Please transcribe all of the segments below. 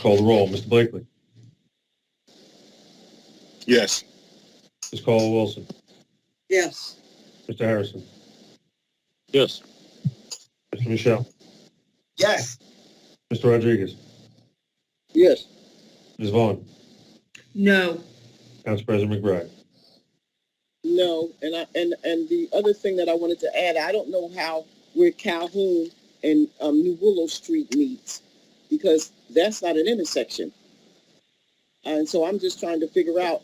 Call the roll. Mr. Blakely. Yes. Ms. Caldwell Wilson. yes, Mr. Harrison. Yes. Mr. Michelle. Yes. Mr. Rodriguez. Yes. Ms. Vaughn. no, Council President McBride. No, and I, and, and the other thing that I wanted to add, I don't know how where Calhoun and, um, New Willow Street meets because that's not an intersection. And so I'm just trying to figure out,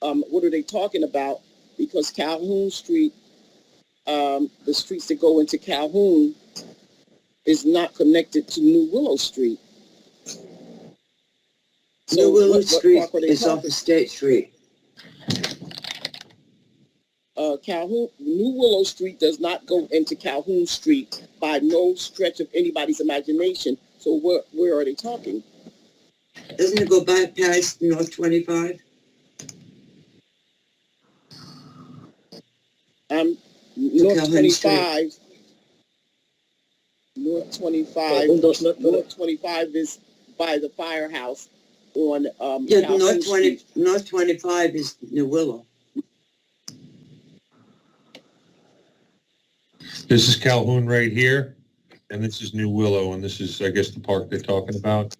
um, what are they talking about? Because Calhoun Street, um, the streets that go into Calhoun is not connected to New Willow Street. So New Willow what- what Street park are they is talking off of State Street. uh, Calhoun, New Willow Street does not go into Calhoun Street by no stretch of anybody's imagination. So where, where are they talking? Doesn't it go by past North 25? Um, North Calhoun Street. twenty-five. North twenty-five, Oh, Yes. North twenty-five is by the firehouse on, um, Yeah, Calhoun North 20, Street. North 25 is New Willow. This is Calhoun right here, and this is New Willow, and this is, I guess, the park they're talking about.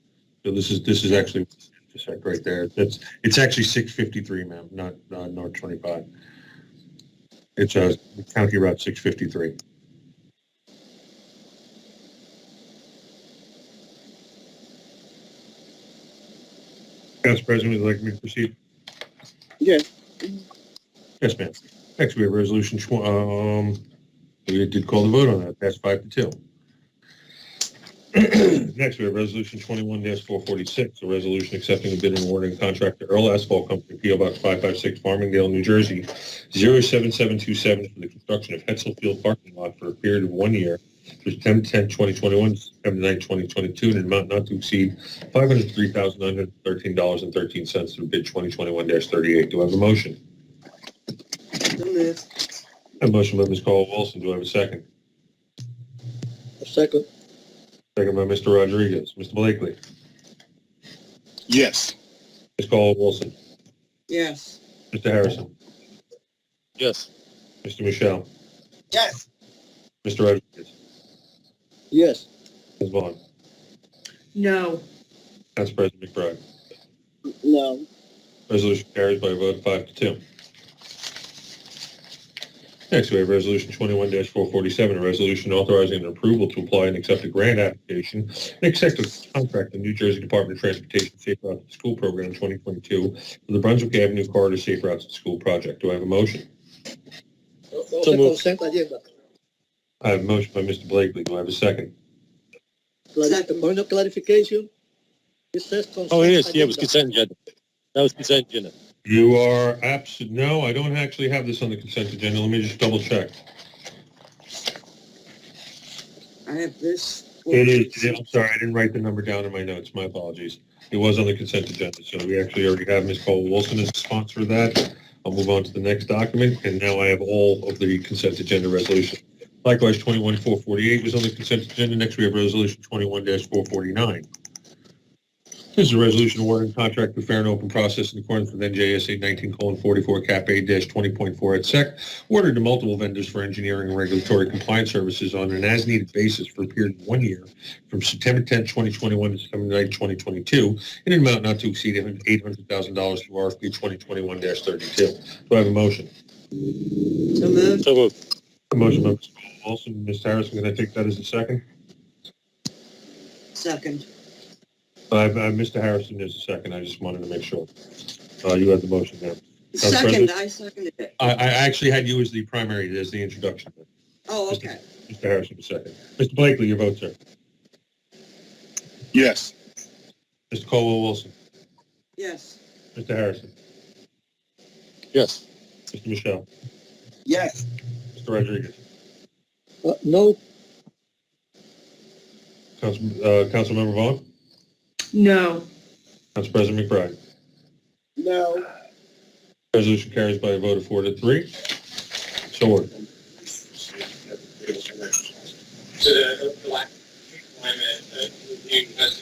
So this is, this is actually, just like right there. That's, it's actually 653, ma'am, not, not North 25. It's, uh, County Route 653. Council President, would you like me to proceed? Yes. Yes, ma'am. Next, we have Resolution, tw- um, we did call the vote on that, that's five to two. Next, we have Resolution 21-446, a resolution accepting a bid and awarding a contract to Earl Asphalt Company, PO Box 556, Farmingdale, New Jersey, 07727 for the construction of Hetzel Field parking lot for a period of one year, through 10/10/2021, September 9, 2022, in an amount not to exceed $503,913.13 through bid 2021-38. Do I have a motion? So moved. A motion by Ms. Caldwell Wilson, do I have a second? Second. Second by Mr. Rodriguez. Mr. Blakely. Yes. Ms. Caldwell Wilson. Yes, Mr. Harrison. Yes. Mr. Michelle. Yes. Mr. Rodriguez. Yes. Ms. Vaughn. no, Council President McBride. No, Resolution carries by a vote of five to two. Next, we have Resolution 21-447, a resolution authorizing an approval to apply and accept a grant application and accept a contract in New Jersey Department of Transportation Safe Routes to School Program 2022 for the Brunswick Avenue Corridor Safe Routes to School Project. Do I have a motion? So moved. I have a motion by Mr. Blakely. Do I have a second? Second. Point of clarification. It says consent. Oh, yes, yeah, it was consent agenda. That was consent agenda. You are absent. No, I don't actually have this on the consent agenda. Let me just double check. I have this. It is, I'm sorry, I didn't write the number down in my notes. My apologies. It was on the consent agenda, so we actually already have Ms. Cole Wilson as the sponsor of that. I'll move on to the next document, and now I have all of the consent agenda resolution. Likewise, 21-448 was on the consent agenda. Next, we have Resolution 21-449. This is a resolution awarding contract for fair and open process in accordance with NJSA 19:44, Cap A-20.4 at SEC, ordered to multiple vendors for engineering and regulatory compliance services on an as-needed basis for a period of one year from September 10, 2021 to September 9, 2022, in an amount not to exceed $800,000 through RFP 2021-32. Do I have a motion? So moved. So uh, moved. A motion by Ms. Wilson. Ms. Harrison, can I take that as a second? Second. Uh, Mr. Harrison is a second. I just wanted to make sure. Uh, You had the motion there. Council Second, President? I seconded it. I, I actually had you as the primary, as the introduction. Oh, okay. Mr. Harrison, a second. Mr. Blakely, your vote, sir. Yes. Mr. Colwell Wilson. Yes, Mr. Harrison. Yes. Mr. Michelle. yes, Mr. Rodriguez. Uh, No. Council, uh, Councilmember Vaughn. no, Council President McBride. no, Resolution carries by a vote of four to three. So ordered. to the black climate, uh, you guys